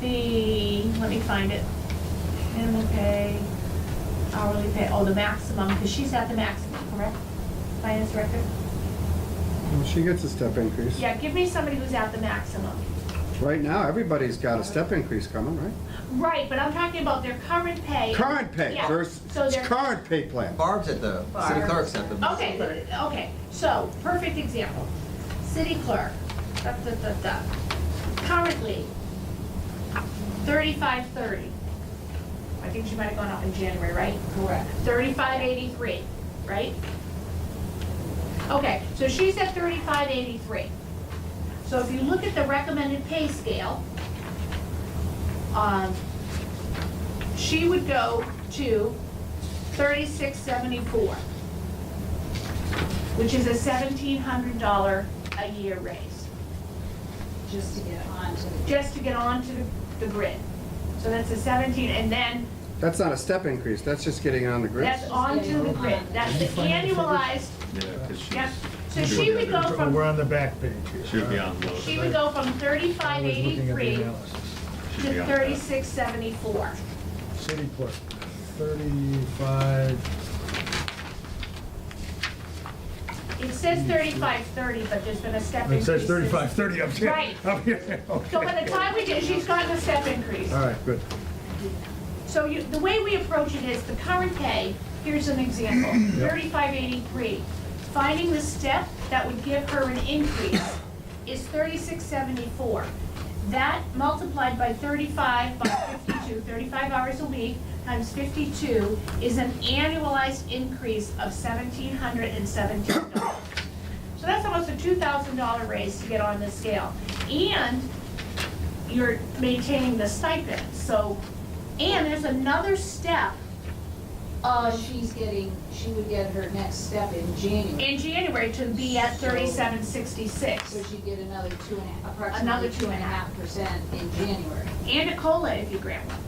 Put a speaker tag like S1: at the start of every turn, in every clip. S1: the, let me find it, minimum pay, hourly pay, oh, the maximum, because she's at the maximum, correct? Finance director?
S2: Well, She gets a step increase.
S1: Yeah, give me somebody who's at the maximum.
S2: Right now, everybody's got a step increase coming, right?
S1: Right, but I'm talking about their current pay.
S2: Current pay,
S1: Yeah,
S2: there's,
S1: So
S2: it's
S1: they're,
S2: current pay plan.
S3: Barb's at the, city
S4: Barb.
S3: clerk's at the.
S1: okay, okay, so, perfect example. City clerk, da, da, da, da. Currently, thirty-five thirty. I think she might have gone up in January, right?
S4: Correct.
S1: Thirty-five eighty-three, right? Okay, so she's at thirty-five eighty-three. So if you look at the recommended pay scale, um, she would go to thirty-six seventy-four, which is a seventeen hundred dollar a year raise,
S4: Just to get on to the.
S1: just to get onto the- the grid. So that's a seventeen, and then
S2: That's not a step increase, that's just getting on the grid.
S1: that's onto the grid. That's the annualized
S5: Yeah, because she's.
S1: Yep, so she would go
S6: Oh, We're
S1: from,
S6: on the back page here.
S5: She would be on low.
S1: she would go from
S6: I
S1: thirty-five
S6: was looking at the
S1: eighty-three
S6: analysis.
S5: She'd be
S1: to
S5: on that.
S1: thirty-six seventy-four.
S6: City clerk, thirty-five,
S1: It says thirty-five thirty, but there's been a step
S6: it
S1: increase.
S6: says thirty-five, thirty up here.
S1: Right.
S6: Up here,
S1: So by the
S6: okay.
S1: time we did, she's gotten a step increase.
S6: All right, good.
S1: So you, the way we approach it is the current pay, here's an example, thirty-five eighty-three. Finding the step that would give her an increase is thirty-six seventy-four. That multiplied by thirty-five, by fifty-two, thirty-five hours a week, times fifty-two, is an annualized increase of seventeen hundred and seventeen dollars. So that's almost a two thousand dollar raise to get on the scale. And you're maintaining the stipend, so, and there's another step
S4: Uh, she's getting, she would get her next step in January,
S1: in January to be at thirty-seven sixty-six.
S4: so she'd get another two and a half,
S1: Another
S4: approximately
S1: two
S4: two
S1: and
S4: and a half percent in January.
S1: And a COLA if you grant one.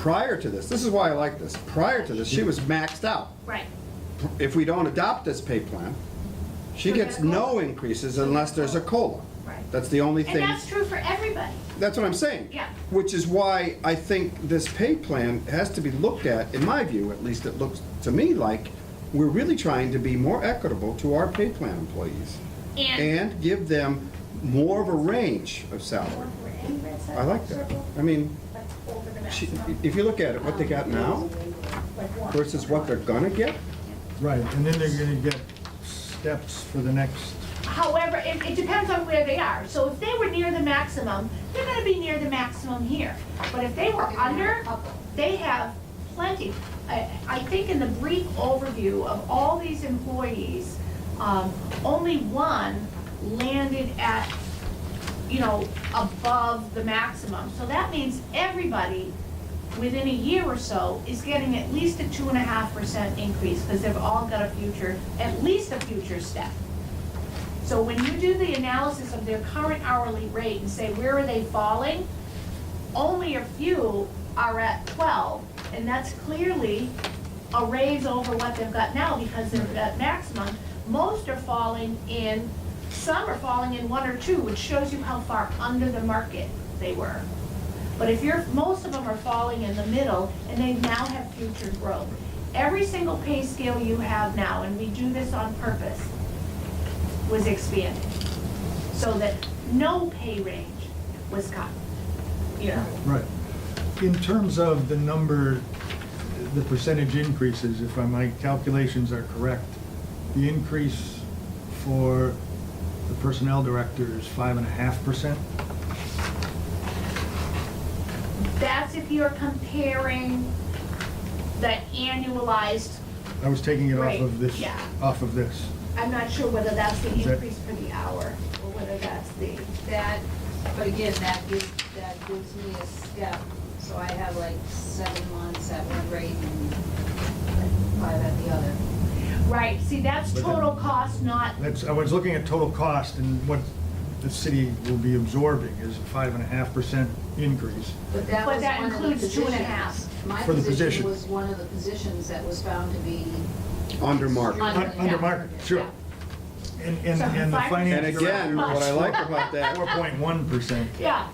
S2: Prior to this, this is why I like this, prior to this, she was maxed out.
S1: Right.
S2: If we don't adopt this pay plan, she
S1: She'll get
S2: gets
S1: a COLA.
S2: no increases unless there's a COLA.
S1: Right.
S2: That's the only
S1: And
S2: thing,
S1: that's true for everybody.
S2: that's what I'm saying.
S1: Yeah.
S2: Which is why I think this pay plan has to be looked at, in my view, at least it looks to me like, we're really trying to be more equitable to our pay plan employees.
S1: And.
S2: and give them more of a range of salary. I like that. I mean,
S1: That's over the
S2: she-
S1: maximum,
S2: if you look at it, what they got now
S1: like one.
S2: versus what they're gonna get,
S6: Right, and then they're gonna get steps for the next,
S1: However, it, it depends on where they are. So if they were near the maximum, they're gonna be near the maximum here. But if they were under,
S4: Couple.
S1: they have plenty. I, I think in the brief overview of all these employees, um, only one landed at, you know, above the maximum. So that means everybody, within a year or so, is getting at least a two and a half percent increase, because they've all got a future, at least a future step. So when you do the analysis of their current hourly rate and say, where are they falling? Only a few are at twelve, and that's clearly a raise over what they've got now because they're at maximum. Most are falling in, some are falling in one or two, which shows you how far under the market they were. But if you're, most of them are falling in the middle, and they now have future growth. Every single pay scale you have now, and we do this on purpose, was expanded, so that no pay range was cut. Yeah.
S6: right. In terms of the number, the percentage increases, if my calculations are correct, the increase for the personnel director is five and a half percent?
S1: That's if you're comparing the annualized,
S6: I was taking it off
S1: Right,
S6: of this,
S1: yeah.
S6: off of this.
S1: I'm not sure whether that's the
S6: Is that-
S1: increase for the hour, or whether that's the,
S4: That, but again, that gives, that gives me a step, so I have like seven months at one rate and five at the other.
S1: right, see, that's
S6: But that-
S1: total cost, not,
S6: That's, I was looking at total cost and what the city will be absorbing is a five and a half percent increase.
S4: But that
S1: But
S4: was
S1: that
S4: one of the
S1: includes two and a
S4: positions.
S1: half.
S4: My
S6: For the
S4: position
S6: position.
S4: was one of the positions that was found to be.
S2: under market.
S4: Un-
S6: Un- Under market, sure. And, and,
S1: So
S6: and the
S1: five
S6: finance
S2: And
S6: director.
S2: again, what I like about that
S6: Four point one percent.
S1: yeah.